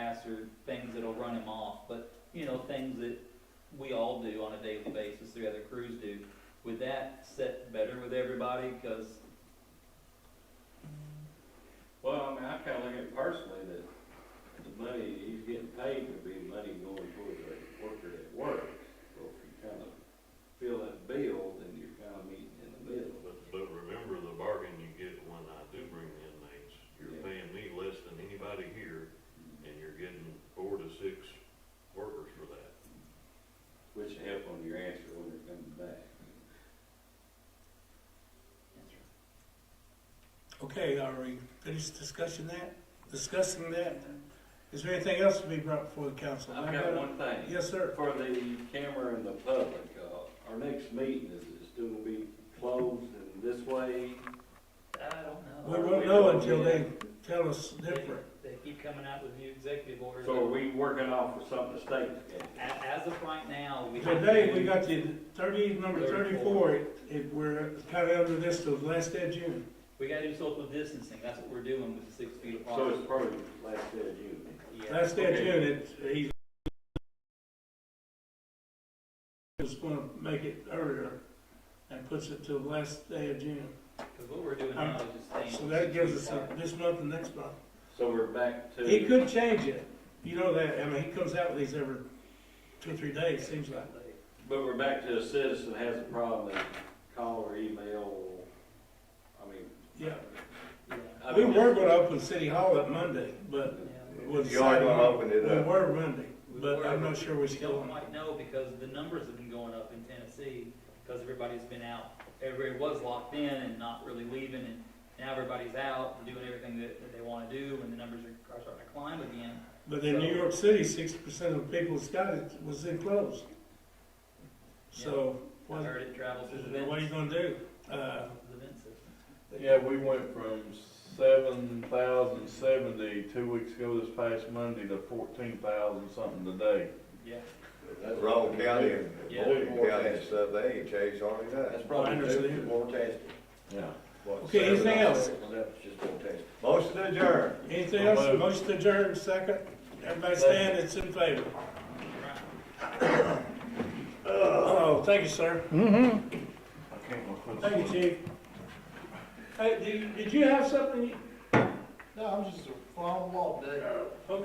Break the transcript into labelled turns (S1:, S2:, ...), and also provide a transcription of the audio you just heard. S1: tags or things that'll run him off, but, you know, things that we all do on a daily basis, the other crews do. Would that set better with everybody? Cause,
S2: Well, I mean, I kinda look at it personally, that the money, he's getting paid to be money going toward the worker that works. So if you kinda fill that bill, then you're kinda meeting in the middle.
S3: But, but remember the bargain you get when I do bring the inmates, you're
S2: Yeah.
S3: paying me less than anybody here, and you're getting four to six workers for that.
S2: Which help on your answer when they're coming back.
S4: Okay, are we finished discussing that, discussing that? Is there anything else to be brought before the council?
S2: I've got one thing.
S4: Yes, sir.
S2: For the camera and the public, uh, our next meeting, is it still gonna be closed in this way?
S1: I don't
S4: We
S1: know.
S4: won't know until they tell us different.
S1: They they keep coming out with new executive orders.
S2: So are we working off of something the state's got?
S1: A- As of right now, we. have
S4: Today,
S1: to-
S4: we got the thirty, number
S1: Thirty-four.
S4: thirty-four, it, it, we're kinda under this till the last day of June.
S1: We gotta do social distancing, that's what we're doing with the six feet apart.
S2: So it's probably last day of June.
S1: Yeah.
S4: Last day of
S2: Okay.
S4: June, it, he's was gonna make it earlier and puts it till the last day of June.
S1: Cause what we're doing now is just staying.
S4: So that gives us uh, this month and next month.
S2: So we're back to.
S4: He could change it. You know that. I mean, he comes out with these every two or three days, seems like.
S2: But we're back to a citizen has a problem, they call or email, I mean.
S4: Yeah.
S1: Yeah.
S2: I
S4: We
S2: mean,
S4: were gonna open City Hall up Monday, but
S1: Yeah.
S4: it was.
S5: You aren't gonna open it
S4: We
S5: up.
S4: were Monday, but I'm not sure we're
S1: We
S4: still
S1: don't
S4: on.
S1: quite know because the numbers have been going up in Tennessee because everybody's been out. Everybody was locked in and not really leaving and now everybody's out and doing everything that, that they wanna do and the numbers are, are starting to climb again.
S4: But in New York City, sixty percent of the people that's got it was enclosed. So
S1: I
S4: what,
S1: heard it travels through the
S4: what are you
S1: vents,
S4: gonna do? Uh,
S1: the vent system.
S5: Yeah, we went from seven thousand seventy two weeks ago this past Monday to fourteen thousand something today.
S1: Yeah.
S5: Wrong county and
S1: Yeah.
S5: Boyd County and stuff, they ain't changed hardly
S6: That's
S5: that.
S6: probably
S4: Minor
S6: due to
S4: league.
S6: more testing.
S5: Yeah.
S6: What,
S4: Okay,
S6: seven
S4: anything
S6: or
S4: else?
S6: eight? That's just more testing.
S5: Motion to adjourn.
S4: anything else?
S5: Remote.
S4: Motion adjourned, second. Everybody stand, it's in favor.
S1: Right.
S4: Oh, thank you, sir.
S5: I can't look for the-
S4: Thank you, Chief. Hey, did, did you have something? you- Uh,
S7: No, I'm just a fly on the wall today.